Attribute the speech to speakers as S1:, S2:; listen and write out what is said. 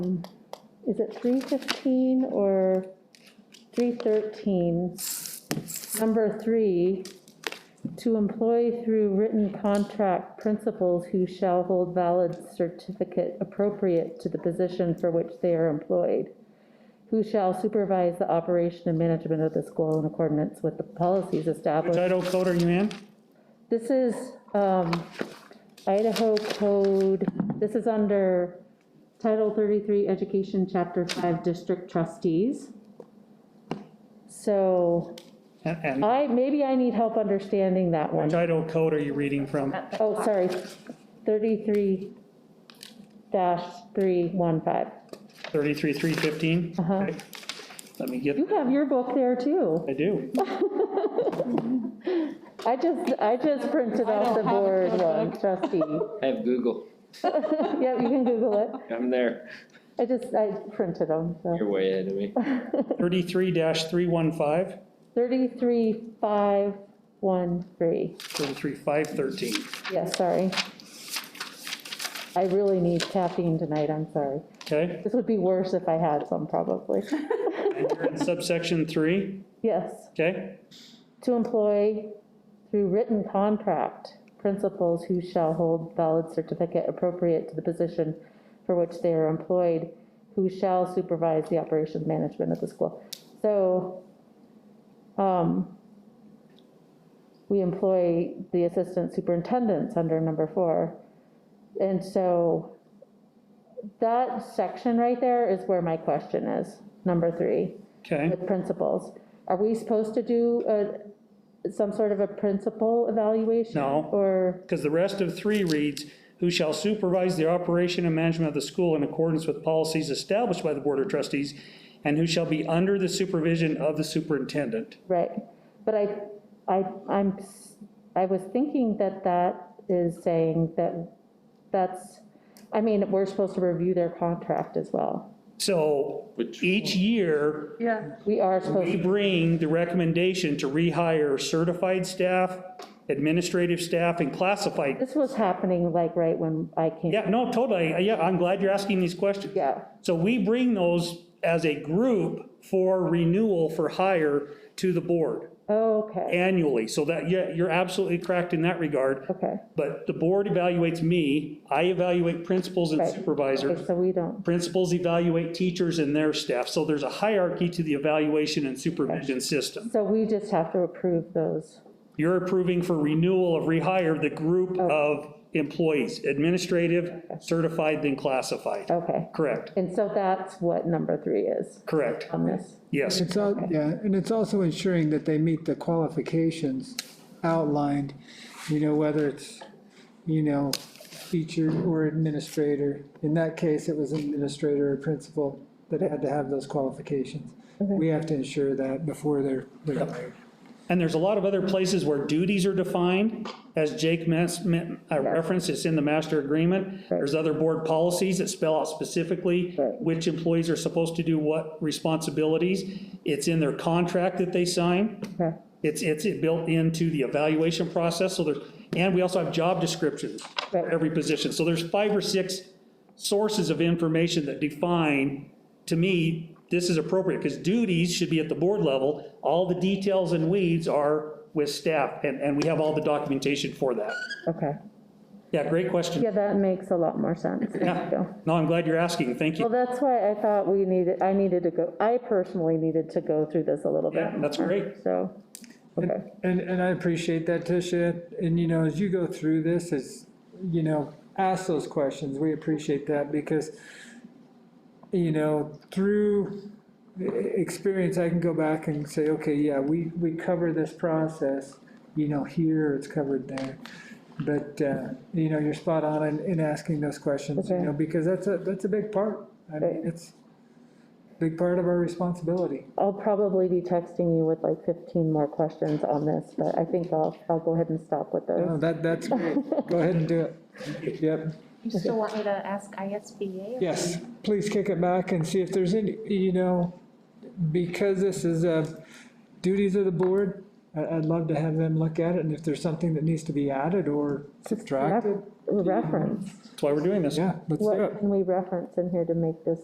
S1: is it 315 or 313? Number three, to employ through written contract principals who shall hold valid certificate appropriate to the position for which they are employed, who shall supervise the operation and management of the school in accordance with the policies established.
S2: Title code are you in?
S1: This is um, Idaho Code, this is under Title 33, Education, Chapter 5, District Trustees. So
S2: And and
S1: I, maybe I need help understanding that one.
S2: title code are you reading from?
S1: Oh, sorry, 33 dash 315.
S2: 33315? Okay. Let me get,
S1: You have your book there too.
S2: I do.
S1: I just, I just printed out the board one, trustee.
S3: I have Google.
S1: Yeah, you can Google it.
S3: I'm there.
S1: I just, I printed them, so.
S3: You're way ahead of me.
S2: 33-315,
S1: 33513.
S2: 33513.
S1: Yeah, sorry. I really need caffeine tonight, I'm sorry.
S2: Okay?
S1: This would be worse if I had some, probably.
S2: And you're in subsection 3,
S1: Yes,
S2: okay?
S1: to employ through written contract principals who shall hold valid certificate appropriate to the position for which they are employed, who shall supervise the operations management of the school. So, um, we employ the assistant superintendents under number four. And so that section right there is where my question is, number three
S2: Okay,
S1: with principals. Are we supposed to do a, some sort of a principal evaluation?
S2: No.
S1: Or,
S2: because the rest of 3 reads, "Who shall supervise the operation and management of the school in accordance with policies established by the Board of Trustees, and who shall be under the supervision of the superintendent."
S1: right, but I, I, I'm, s- I was thinking that that is saying that that's, I mean, we're supposed to review their contract as well.
S2: So
S3: Which-
S2: each year,
S4: Yeah,
S1: We are supposed,
S2: We
S1: to
S2: bring the recommendation to rehire certified staff, administrative staff, and classified.
S1: this was happening like right when I came.
S2: Yeah, no, totally, Uh, yeah, I'm glad you're asking these questions.
S1: Yeah,
S2: So we bring those as a group for renewal for hire to the board
S1: okay,
S2: annually. So that, yeah, you're absolutely correct in that regard.
S1: okay,
S2: But the board evaluates me, I evaluate principals and
S1: Right.
S2: supervisors.
S1: okay, so we don't,
S2: Principals evaluate teachers and their staff. So there's a hierarchy to the evaluation and supervision system.
S1: so we just have to approve those.
S2: You're approving for renewal of rehire the group of employees, administrative, certified, then classified.
S1: Okay,
S2: Correct,
S1: and so that's what number three is
S2: correct,
S1: on this.
S2: yes.
S5: It's all, yeah, and it's also ensuring that they meet the qualifications outlined, you know, whether it's, you know, teacher or administrator. In that case, it was administrator or principal that had to have those qualifications. We have to ensure that before they're, they're hired.
S2: And there's a lot of other places where duties are defined, as Jake mes- me- uh, referenced, it's in the master agreement. There's other board policies that spell out specifically
S1: Right.
S2: which employees are supposed to do what responsibilities. It's in their contract that they sign.
S1: Okay.
S2: It's, it's built into the evaluation process, so there's, and we also have job descriptions for
S1: Right.
S2: every position. So there's five or six sources of information that define, to me, this is appropriate, because duties should be at the board level. All the details and weeds are with staff, and, and we have all the documentation for that.
S1: Okay.
S2: Yeah, great question.
S1: Yeah, that makes a lot more sense. Thank
S2: Yeah.
S1: you.
S2: No, I'm glad you're asking, thank
S1: Well,
S2: you.
S1: that's why I thought we needed, I needed to go, I personally needed to go through this a little bit.
S2: Yeah, that's great.
S1: So, okay,
S5: And, and I appreciate that, Tisha. And, you know, as you go through this, as, you know, ask those questions. We appreciate that because, you know, through e- experience, I can go back and say, okay, yeah, we, we cover this process, you know, here, it's covered there. But, uh, you know, you're spot on in, in asking those questions, you
S1: Okay.
S5: know, because that's a, that's a big part. I mean,
S1: Right.
S5: it's a big part of our responsibility.
S1: I'll probably be texting you with like 15 more questions on this, but I think I'll, I'll go ahead and stop with
S5: No,
S1: those.
S5: Oh, that, that's great. Go ahead and do it. Yep.
S6: You still want me to ask ISBA?
S5: Yes, please kick it back and see if there's any, you know, because this is uh, duties of the board, I- I'd love to have them look at it, and if there's something that needs to be added or subtracted,
S1: Ref- Reference,
S2: That's why we're doing this.
S5: yeah, let's do it.
S1: what can we reference in here to make this